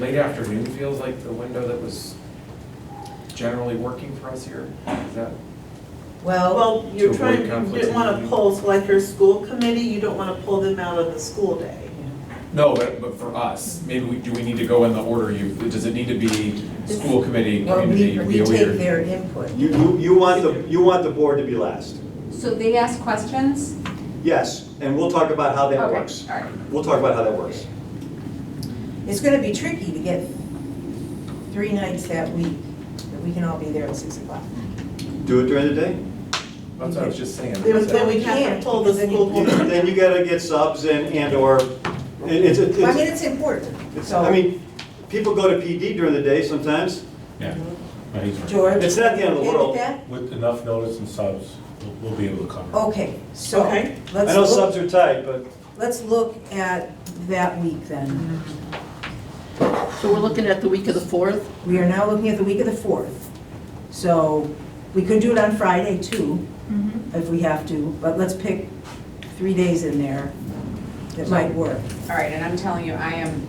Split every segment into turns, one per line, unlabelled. Late afternoon feels like the window that was generally working for us here. Is that,
Well,
Well,
To
you're
avoid
trying, you
conflicts
didn't
of
want to
interest.
pull, so like your school committee, you don't want to pull them out of the school day.
no, but, but for us, maybe we, do we need to go in the order you, does it need to be school committee,
Or we,
community,
we
BOE?
take
or-
their input.
You, you, you want the, you want the board to be last.
So they ask questions?
Yes, and we'll talk about how that
Okay,
works.
all right.
We'll talk about how that works.
It's gonna be tricky to get three nights that week, that we can all be there at six o'clock.
Do it during the day?
That's what I was just saying.
Then then we'd have
can't,
to pull the
because then you-
school
You-
board.
Then you gotta get subs and, and or, it- it's,
But I mean, it's
it's,
important,
it's,
so.
I mean, people go to PD during the day sometimes.
Yeah, but he's right.
George?
It's not the end of
okay
the
with
world.
that?
With enough notice and subs, we'll- we'll be able to cover. it.
Okay, so,
Okay.
I
let's
know subs
look,
are tight, but
let's look at that week then.
So we're looking at the week of the 4th?
We are now looking at the week of the fourth. So, we could do it on Friday too, if we have to, but let's pick three days in there that might work,
All right, and I'm telling you, I am,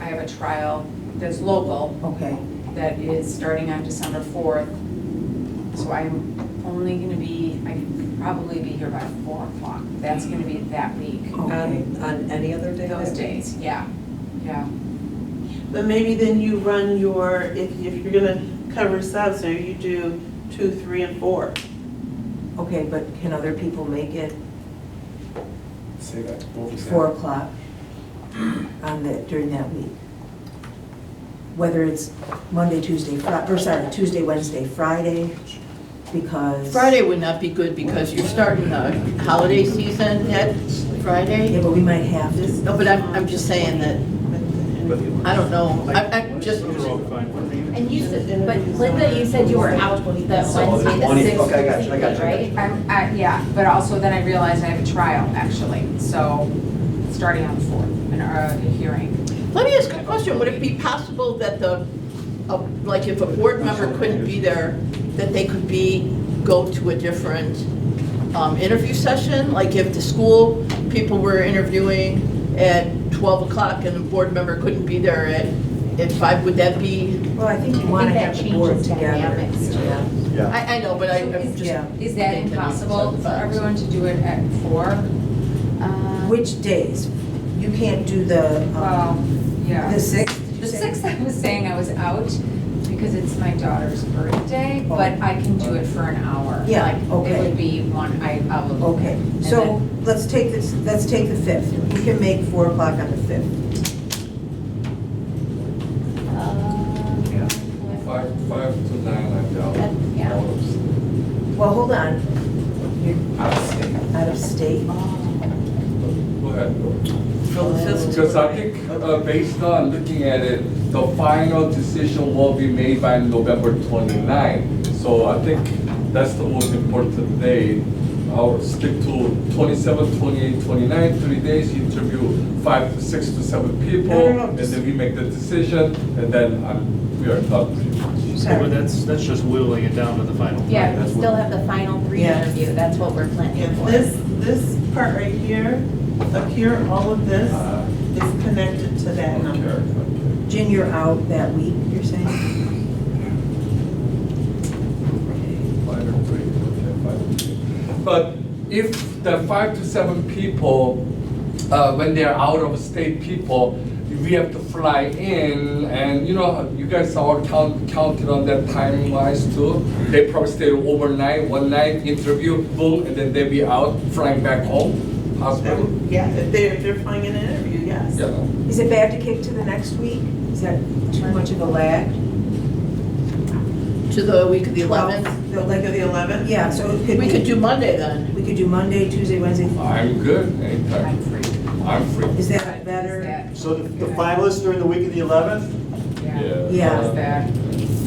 I have a trial that's local
okay?
that is starting on December 4th. So I'm only going to be, I can probably be here by 4 o'clock. That's going to be that week.
Okay.
on any other day?
Those days, yeah, yeah.
But maybe then you run your, if, if you're gonna cover subs, there you do two, three, and four.
Okay, but can other people make it
Say that. What was that?
four o'clock on the, during that week? Whether it's Monday, Tuesday, Fri, or sorry, Tuesday, Wednesday, Friday, because.
Friday would not be good because you're starting the holiday season at
Yeah,
Friday.
but we might have
This-
to.
No, but I'm, I'm just saying that, I don't know, I, I'm just,
And you said, but Linda, you said you were out the Wednesday, the
Twenty-
sixth,
okay, I got you, I got you.
right?
I'm, I- yeah, but also then I realized I have a trial, actually, so starting on the 4th, an, uh, a hearing.
let me ask a question, would it be possible that the, uh, like, if a board member couldn't be there, that they could be, go to a different um, interview session? Like, if the school people were interviewing at 12 o'clock and the board member couldn't be there at, at 5, would that be
Well, I think you
I
want to
think
have
that
the board
changes
together.
dynamics, too.
Yeah.
yeah.
I, I know, but I, I'm just.
Yeah.
Is that
thinking outside the
impossible for
box.
everyone to do it at 4?
Which days? You can't do the, um,
Well, yeah.
the sixth? did you
The
say?
sixth, I was saying I was out because it's my daughter's birthday, but I can do it for an hour.
Yeah,
Like,
okay.
It would be one, I, I will.
um, Okay,
And
so
then-
let's take this, let's take the fifth. We can make four o'clock on the fifth.
Five, five to nine, I'm down.
Yeah.
Well, hold on, you're
Out of state.
out of state.
Go ahead.
Well, it
Oh.
says-
Because I think, uh, based on looking at it, the final decision will be made by November 29. So I think that's the most important day. I'll stick to 27, 28, 29, three days, interview five, six to seven people.
no, no,
And then we make the decision, and then I'm, we are done pretty much.
Yeah, but that's, that's just whittling it down to the final.
Yeah, we
That's what-
still have the final three
Yeah.
interview, that's what we're
Yeah,
planning for.
this, this part right here, up here, all of this
Uh,
is connected to that
Okay,
number.
okay.
Jen, you're out that week, you're saying?
Five or three, okay, five or three. But if the five to seven people, uh, when they're out of state people, we have to fly in and, you know, you guys all count, counted on that time wise too. They probably stay overnight, one night, interview, boom, and then they be out flying back home,
That
possibly.
would- Yeah, if they're, if they're flying in an interview, yes.
Yeah.
Is it bad to kick to the next week? Is that too much of a lag?
To the week of the
Twelve,
11th?
the
Like
leg
of
of
the eleventh?
the- Yeah, so it could
We could
be,
do Monday then.
we could do Monday, Tuesday, Wednesday.
I'm good,
I'm
anytime,
free.
I'm free.
Is that better?
Is
So the the finalists during the week of the eleventh?
that- Yeah.
Yeah.
Does that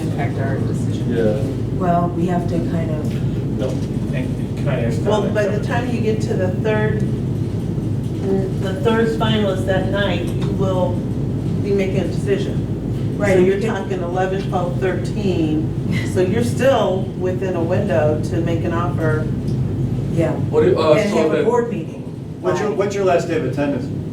impact our decision?
Yeah.
Well, we have to kind of,
No, and can I ask? that?
Well, by the time you get to the third, the third finalist that night, you will be making a decision.
Right,
So
and
you're
you can-
talking 11, 12, 13, so you're still within a window to make an offer.
yeah.
What, do- uh,
And
so
have a
that,
board meeting.
What's your, what's your last day of attendance?